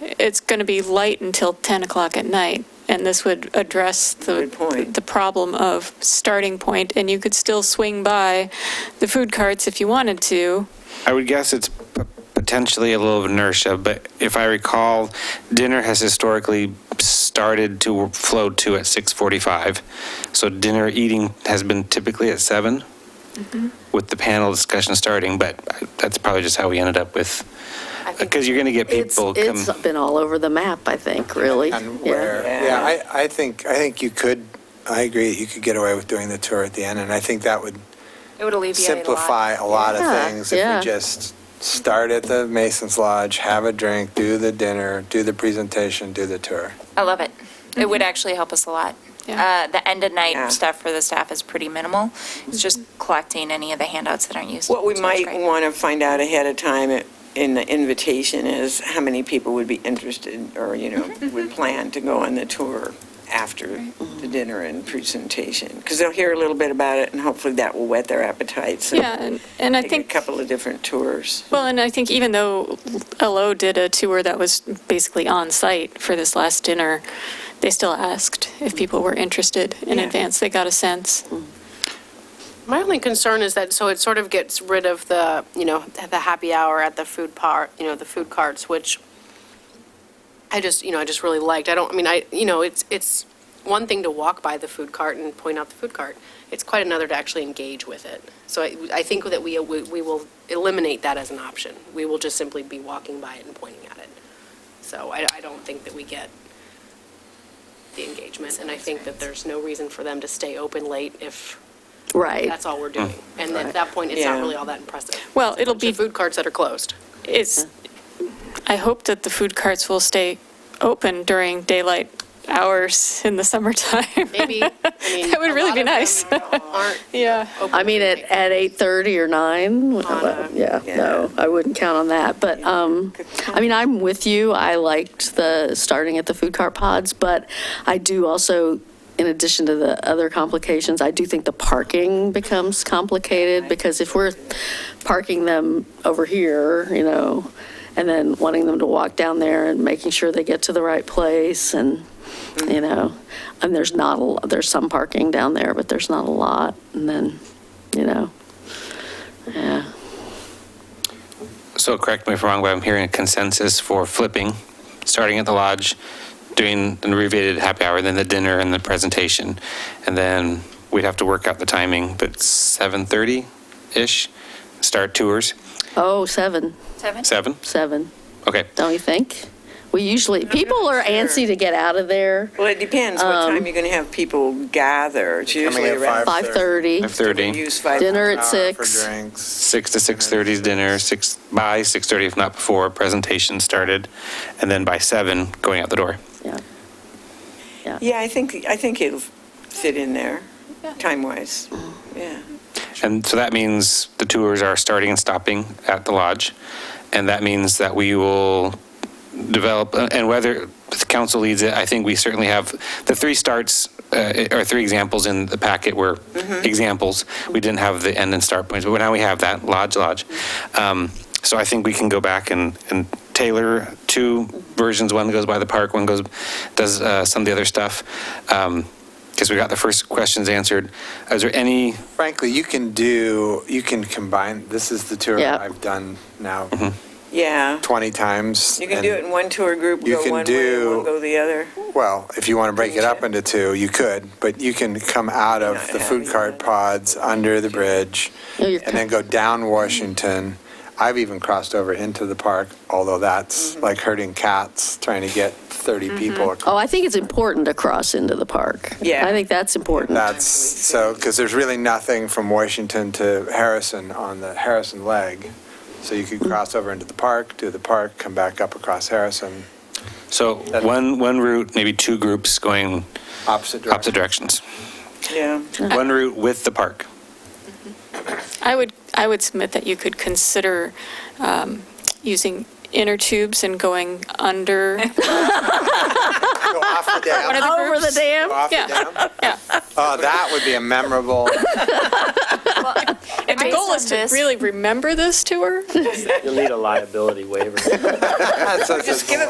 it's going to be light until 10 o'clock at night, and this would address the, Good point. the problem of starting point, and you could still swing by the food carts if you wanted to. I would guess it's p- potentially a little inertia, but if I recall, dinner has historically started to flow to at 6:45. So dinner eating has been typically at 7 Mm-hmm. with the panel discussion starting, but uh, that's probably just how we ended up with, because you're going to get It's, people come. it's been all over the map, I think, really. And Yeah. where, yeah, I, I think, I think you could, I agree, you could get away with doing the tour at the end, and I think that would It would alleviate a lot. simplify a lot of Yeah, things if yeah. we just start at the Mason's Lodge, have a drink, do the dinner, do the presentation, do the tour. I love it. It would actually help us a lot. Yeah. Uh, The end of Yeah. night stuff for the staff is pretty minimal. It's just collecting any of the handouts that aren't used. What we So it's might great. want to find out ahead of time in the invitation is how many people would be interested or, you know, would plan to go on the tour after the dinner and presentation. Because they'll hear a little bit about it and hopefully that will whet their appetite. So Yeah, and- and I take think. a couple of different tours. Well, and I think even though LO did a tour that was basically on-site for this last dinner, they still asked if people were interested in Mm. Yeah. Mm. advance. They got a sense. My only concern is that, so it sort of gets rid of the, you know, the happy hour at the food part, you know, the food carts, which I just, you know, I just really liked. I don't, I mean, I, you know, it's, it's one thing to walk by the food cart and point out the food cart. It's quite another to actually engage with it. So I, I think that we, we we will eliminate that as an option. We will just simply be walking by it and pointing at it. So I, I don't think that we get the engagement, and I think that there's no reason for them to stay open late if Right. that's all we're doing. And at that point, it's Yeah. not really all that impressive. Hmm. Well, it'll be, The food carts that are closed. it's, I hope that the food carts will stay open during daylight hours in the summertime. Maybe, I mean. That would a really lot be of them nice. Aren't Yeah. open. I mean, at, at 8:30 or 9, a- yeah, Oh, no, I wouldn't count on that. But, um, I mean, I'm with you. I liked the, starting at the food cart pods, but I do also, in addition to the other complications, I do think the parking becomes complicated because if we're parking them over here, you know, and then wanting them to walk down there and making sure they get to the right place and, you know, and there's not, a lo- there's some parking down there, but there's not a lot. And then, you know, yeah. So correct me if I'm wrong, but I'm hearing a consensus for flipping, starting at the lodge, doing an abbreviated happy hour, then the dinner and the presentation. And then we'd have to work out the timing, but 7:30-ish, start tours, Oh, seven, Seven? 7? seven, Okay. don't you think? We usually, people are antsy to get out of there, Well, it depends what time you're going to have people gather. It's Coming usually at around. 5:30, 5:30, Use five. dinner at Hour for 6. drinks. 6 to 6:30 is dinner, 6, by 6:30 if not before, presentation started, and then by 7, going out the door. Yeah. Yeah, I think, I think it'll fit in there, time-wise. Yeah. And so that means the tours are starting and stopping at the lodge. And that means that we will develop, uh, and whether the council leads it, I think we certainly have, the three starts, uh, or three examples in the packet were examples. We didn't have the end and start points, but now we have that, lodge, lodge. Um, So I think we can go back and, and tailor two versions, one goes by the park, one goes, does uh, some of the other stuff. Because we got the first questions answered. Is there any Frankly, you can do, you can combine, this is the tour Yeah. I've done now Yeah. 20 times. You can and- do it in one tour group, You go can one way, and one do- go the other. Well, if you want to break it up Change into two, you could, but you can come out of Not the have food you cart done. pods, under the bridge, No, you're and then go down Washington. I've even crossed over into the park, although that's like herding cats, trying to get 30 people. Oh, across. I think it's important to cross into the park. Yeah. I think that's important. That's, so, because there's really nothing from Washington to Harrison on the Harrison leg. So you could cross over into the park, do the park, come back up across Harrison, So one, one route, maybe two groups going opposite direction. opposite directions. Yeah. One route with the park. I would, I would submit that you could consider um, using inner tubes and going under Go off the one of dam, the Over the groups. go dam? off the Yeah. dam. Yeah. Oh, that would be a memorable. And the goal Based is on to this- really remember this tour. You'll need a liability waiver. That's- that's- Just give it